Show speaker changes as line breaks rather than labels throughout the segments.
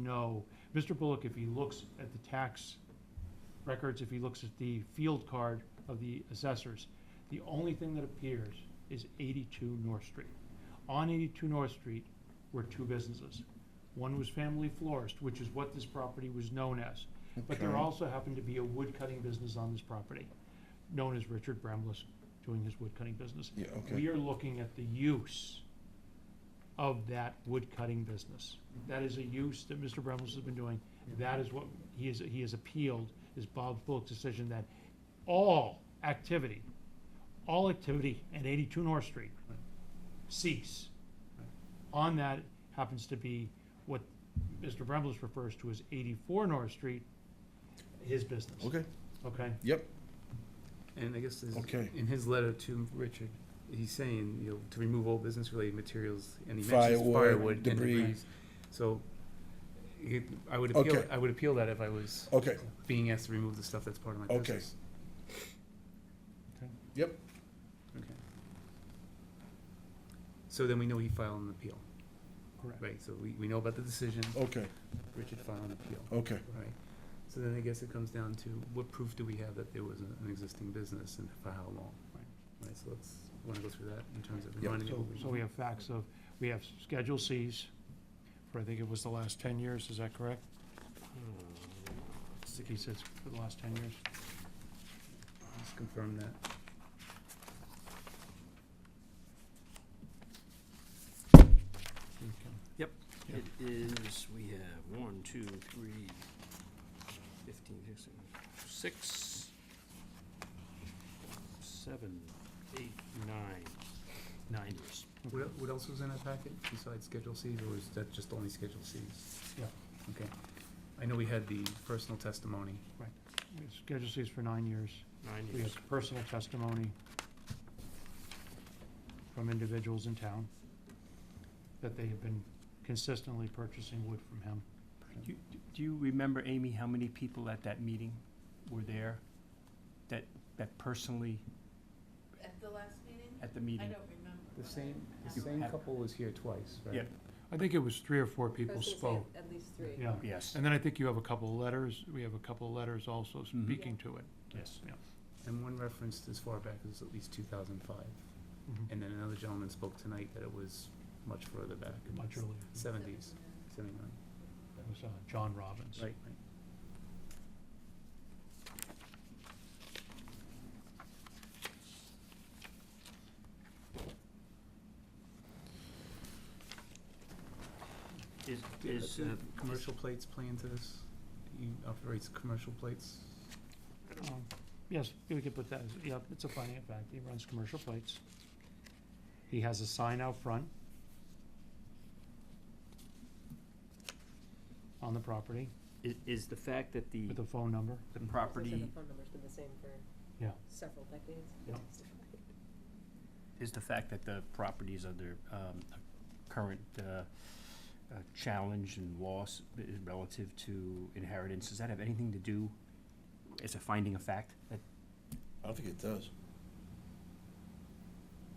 know, Mr. Bullock, if he looks at the tax records, if he looks at the field card of the assessors, the only thing that appears is 82 North Street. On 82 North Street were two businesses. One was Family Florist, which is what this property was known as. But there
Okay.
also happened to be a woodcutting business on this property, known as Richard Bramless, doing his woodcutting business.
Yeah, okay.
We are looking at the use of that woodcutting business. That is a use that Mr. Bremlis has been doing. That is what, he is, he has appealed, is Bob Bullock's decision that all activity, all activity at 82 North Street cease. On that happens to be what Mr. Bremlis refers to as 84 North Street, his business.
Okay,
Okay?
yep,
And I guess this-
Okay.
in his letter to Richard, he's saying, you know, to remove all business-related materials, and he mentions
Firewood,
firewood and
debris.
debris. So it- I would appeal,
Okay.
I would appeal that if I was
okay,
being asked to remove the stuff that's part of my
Okay.
business.
yep,
Okay. So then we know he filed an appeal,
Correct.
right? So we, we know about the decision,
okay,
Richard filed an appeal,
okay.
right? So then I guess it comes down to what proof do we have that there was an an existing business and for how long?
Right.
Right, so let's, wanna go through that in terms of
Yep.
reminding.
So, so we have facts of, we have Schedule Cs for, I think it was the last ten years, is that correct? He says for the last ten years.
Let's confirm that.
It is, we have one, two, three, fifteen, sixteen, six, seven, eight, nine, nine years.
What, el- what else was in that packet besides Schedule Cs, or was that just only Schedule Cs?
Yeah.
Okay. I know we had the personal testimony.
We have Schedule Cs for nine years.
Nine
We
years.
have personal testimony from individuals in town that they have been consistently purchasing wood from him.
Do you- do you remember, Amy, how many people at that meeting were there that, that personally
At the last meeting?
at the
I
meeting?
don't remember.
The
what
same, the
happened.
same couple was here twice, right?
Yeah.
I think it was three or four people spoke,
At least three.
yeah.
Yes.
And then I think you have a couple of letters, we have a couple of letters also speaking to it.
Yes.
Yeah.
And one referenced as far back as at least two thousand five.
Mhm.
And then another gentleman spoke tonight that it was much further back.
Much earlier.
Seventies, seventy-nine,
It was uh, John Robbins.
right, right.
Is,
Do-
is,
do
uh,
Commercial plates play into this? He operates commercial plates?
Um, Yes, we could put that, as- yep, it's a finding of fact, he runs commercial plates. He has a sign out front on the property
is, is the fact that the,
with a phone number.
the property,
phone number's been the same for
Yeah.
several decades.
Yeah.
is the fact that the property is under, um, a current, uh, uh, challenge and loss i- relative to inheritance, does that have anything to do, as a finding of fact, that
I don't think it does.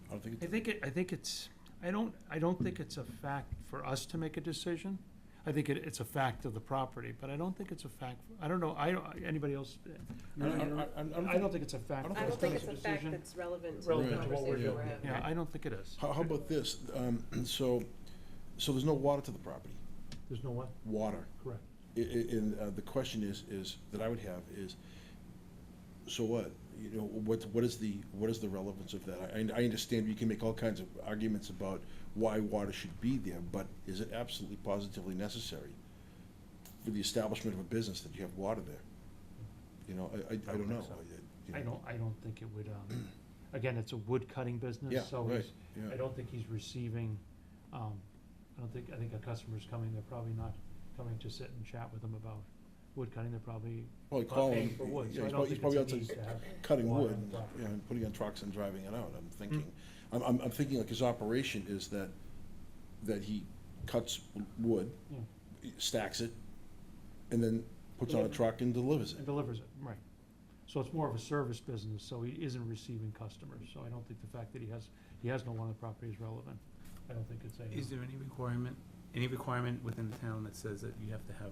I don't think
I
it,
think it, I think it's, I don't, I don't think it's a fact for us to make a decision. I think it, it's a fact of the property, but I don't think it's a fact, I don't know, I, don't- anybody else,
I don't, I don't- I don't-
I don't think it's a fact.
I don't
for
I
us
don't
to
think
make
it's a fact
decision.
that's relevant to the
Relevant
to what we're
conversation we're
doing,
having.
Yeah, I don't think it is.
How, how about this, um, so, so there's no water to the property,
There's no what?
water.
Correct.
I- I- and, uh, the question is, is, that I would have is, so what? You know, what, what is the, what is the relevance of that? I, I understand you can make all kinds of arguments about why water should be there, but is it absolutely positively necessary for the establishment of a business that you have water there? You know, I, I, I don't know. you
I don't, I don't think it would, um, again, it's a wood cutting
Yeah,
business, so
right,
he's-
yeah.
I don't think he's receiving, um, I don't think, I think a customer's coming, they're probably not coming to sit and chat with him about wood cutting, they're probably
Probably
not
calling.
paying for wood, so I don't
he's probably- he's
think it's a
probably
need to
outside
have
Cutting
water
wood,
on the
and,
property.
you know, and putting on trucks and driving it out, I'm thinking, I'm, I'm, I'm thinking like his operation is that, that he cuts wood,
Yeah.
stacks it, and then puts on a
Delivers it.
truck and delivers
And
it.
delivers it, right. So it's more of a service business, so he isn't receiving customers, so I don't think the fact that he has, he has no one on the property is relevant. I don't think it's a.
Is there any requirement any requirement within the town that says that you have to have